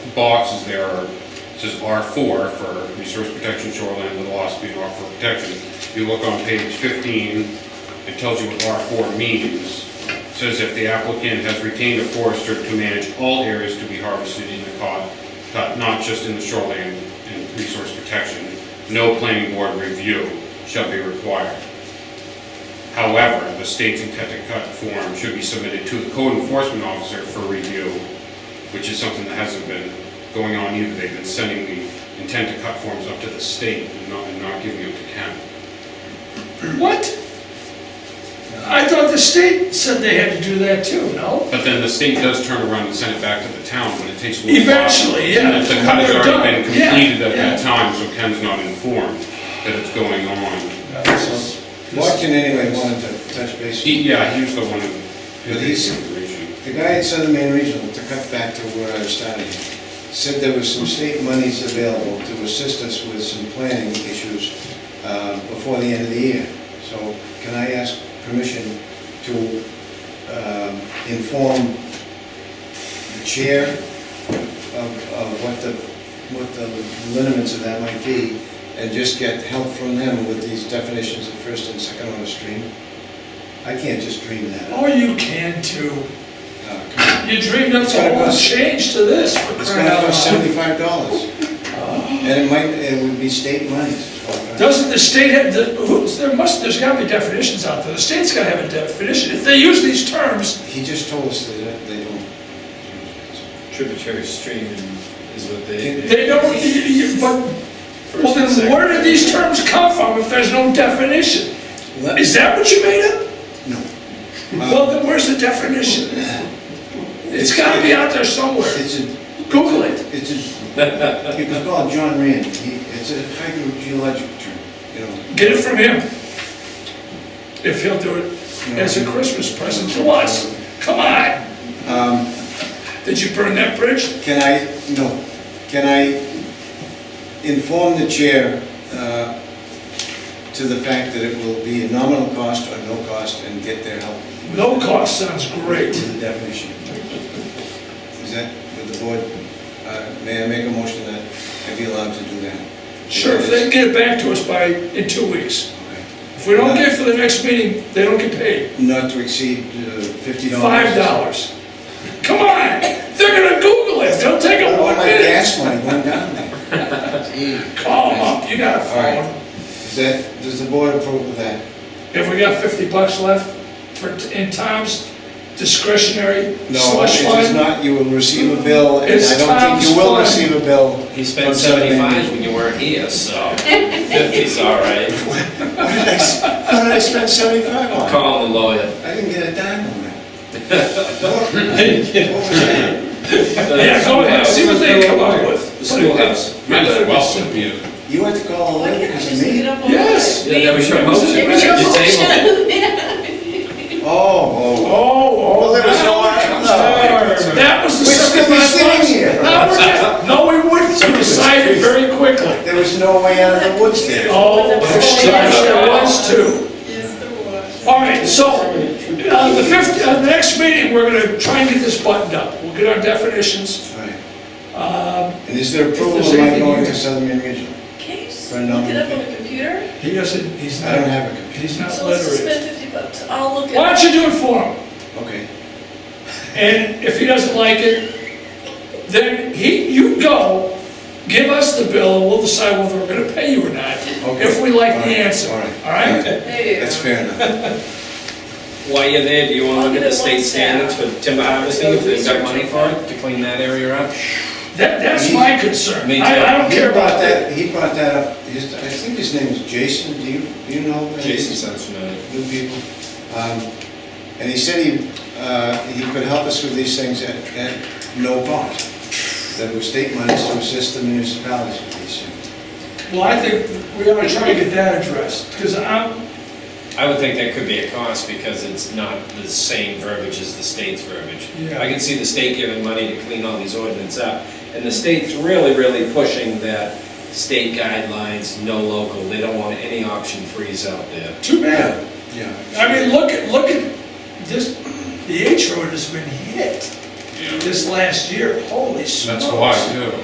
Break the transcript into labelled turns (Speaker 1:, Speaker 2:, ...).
Speaker 1: boxes there are, it says R4 for resource protection shoreline with loss being R4 protection. If you look on page 15, it tells you what R4 means. It Says if the applicant has retained a forester to manage all areas to be harvested in the cod, cod- not just in the shoreline and resource protection, no planning board review shall be required. However, the state's intent to cut form should be submitted to the code enforcement officer for review, which is something that hasn't been going on either. They've been sending the intent to cut forms up to the state and not, and not giving them to Ken.
Speaker 2: What? I thought the state said they had to do that too, no?
Speaker 1: But then the state does turn around and send it back to the town, but it takes a little while.
Speaker 2: Eventually, yeah.
Speaker 1: And if the cut has
Speaker 2: They're
Speaker 1: already been
Speaker 2: done. Yeah,
Speaker 1: completed at that
Speaker 2: yeah.
Speaker 1: time, so Ken's not informed that it's going on.
Speaker 3: Watson anyway wanted to touch base.
Speaker 1: He, yeah, he was the one who
Speaker 3: But
Speaker 1: did
Speaker 3: he's-
Speaker 1: the information.
Speaker 3: The guy at Southern Maine Regional, to cut back to where I was starting, said there was some state monies available to assist us with some planning issues uh, before the end of the year. So can I ask permission to um, inform the chair of of what the, what the lineaments of that might be, and just get help from them with these definitions of first and second order stream? I can't just dream that up.
Speaker 2: Or Oh, you can too.
Speaker 3: Uh,
Speaker 2: You dreamed up the whole change to this for
Speaker 3: It's
Speaker 2: crying
Speaker 3: gonna
Speaker 2: out
Speaker 3: cost
Speaker 2: loud.
Speaker 3: seventy-five dollars. And it might, it would be state monies.
Speaker 2: Doesn't the state have, the- who's, there must, there's gotta be definitions out there. The state's gotta have a definition. If they use these terms,
Speaker 3: He just told us that they don't.
Speaker 4: tributary stream is what
Speaker 3: they-
Speaker 2: they don't, y- y- but, well then where did these terms come from if there's no definition? Is that what you made up?
Speaker 3: No.
Speaker 2: Well, then where's the definition? It's gotta be out there somewhere.
Speaker 3: It's a,
Speaker 2: Google it.
Speaker 3: it's a, you can call John Rand, he, it's a hydrogeologic term, you know.
Speaker 2: Get it from him. If he'll do it as a Christmas present to us. Come on. Did you burn that bridge?
Speaker 3: Can I, no, can I inform the chair uh, to the fact that it will be a nominal cost or no cost and get their help
Speaker 2: No cost sounds great.
Speaker 3: with the definition? Is that, with the board, uh, may I make a motion that I be allowed to do that?
Speaker 2: Sure, if they get it back to us by, in two weeks.
Speaker 3: Okay.
Speaker 2: If we don't get it for the next meeting, they don't get paid.
Speaker 3: Not to exceed uh, fifty dollars.
Speaker 2: Five dollars. Come on, they're gonna Google it. They'll take a
Speaker 3: All
Speaker 2: one
Speaker 3: my
Speaker 2: minute.
Speaker 3: gas money went down there.
Speaker 2: Call them up. You got a
Speaker 3: All right.
Speaker 2: phone.
Speaker 3: Is that, does the board approve of that?
Speaker 2: If we got fifty bucks left for, in Tom's discretionary
Speaker 3: No,
Speaker 2: slush
Speaker 3: it is
Speaker 2: fund.
Speaker 3: not, you will receive a bill, and
Speaker 2: It's
Speaker 3: I don't think
Speaker 2: Tom's
Speaker 3: you will
Speaker 2: fund.
Speaker 3: receive a bill.
Speaker 4: He spent
Speaker 3: from Southern Maine.
Speaker 4: seventy-five when you weren't here, so fifty's all right.
Speaker 3: How did I spend seventy-five on? it?
Speaker 4: Call the lawyer.
Speaker 3: I didn't get a dime on that. What- what was that?
Speaker 2: Yeah, go ahead, see what they come up with.
Speaker 4: The schoolhouse.
Speaker 1: Might as well, it'd be a-
Speaker 3: You had to call
Speaker 5: Why
Speaker 3: eleven
Speaker 5: can't I
Speaker 3: because
Speaker 5: just
Speaker 3: of
Speaker 5: look it
Speaker 3: me?
Speaker 5: up on?
Speaker 2: Yes.
Speaker 4: Yeah, that was your motion.
Speaker 5: It was your
Speaker 4: You tabled
Speaker 3: Oh,
Speaker 2: Oh,
Speaker 3: oh.
Speaker 2: oh.
Speaker 3: Well, there was no
Speaker 2: that
Speaker 3: action.
Speaker 2: was there. That was the
Speaker 3: We're still
Speaker 2: seventy-five bucks.
Speaker 3: sitting here.
Speaker 2: No, we're not. No, we wouldn't, we decided very quickly.
Speaker 3: There was no way out of the woods there.
Speaker 2: Oh, gosh, there was too.
Speaker 5: Yes, there was.
Speaker 2: All right, so, uh, the fifth, uh, the next meeting, we're gonna try and get this buttoned up. We'll get our definitions.
Speaker 3: Right.
Speaker 2: Oh.
Speaker 3: And is there approval
Speaker 2: If
Speaker 3: of
Speaker 2: there's
Speaker 3: my
Speaker 2: anything
Speaker 3: going
Speaker 2: you-
Speaker 3: to Southern Maine Regional?
Speaker 5: Can you just
Speaker 3: For
Speaker 5: look
Speaker 3: another
Speaker 5: it up on
Speaker 3: thing.
Speaker 5: the computer?
Speaker 2: He doesn't, he's
Speaker 3: I don't have a computer.
Speaker 2: he's
Speaker 5: So let's just spend fifty bucks, I'll look it
Speaker 2: Why
Speaker 5: up.
Speaker 2: don't you do it for him?
Speaker 3: Okay.
Speaker 2: And if he doesn't like it, then he, you go, give us the bill, and we'll decide whether we're gonna pay you or not,
Speaker 3: Okay.
Speaker 2: if we like
Speaker 3: All
Speaker 2: the
Speaker 3: right,
Speaker 2: answer,
Speaker 3: all
Speaker 2: all
Speaker 3: right.
Speaker 2: right?
Speaker 5: There you go.
Speaker 3: That's fair enough.
Speaker 4: While you're there, do you wanna look at the state standards for timber harvesting, if they've got money for it, to clean that area up?
Speaker 2: That, that's my concern.
Speaker 4: Me
Speaker 2: I, I don't
Speaker 3: He
Speaker 2: care
Speaker 3: brought
Speaker 2: about that.
Speaker 3: that, he brought that up, his, I think his name is Jason, do you, do you know? him?
Speaker 4: Jason sounds familiar.
Speaker 3: new people. Um, And he said he, uh, he could help us with these things at, at no cost. That was state monies to assist the municipalities with these things.
Speaker 2: Well, I think we ought to try to get that addressed, because I'm,
Speaker 4: I would think that could be a cost because it's not the same verbiage as the state's verbiage.
Speaker 2: Yeah.
Speaker 4: I can see the state giving money to clean all these ordinance up, and the state's really, really pushing that state guidelines, no local, they don't want any option threes out there.
Speaker 2: too bad.
Speaker 3: Yeah.
Speaker 2: I mean, look at, look at, this, the H road has been hit. you know,
Speaker 6: this last year, holy smokes.
Speaker 2: that's why, too.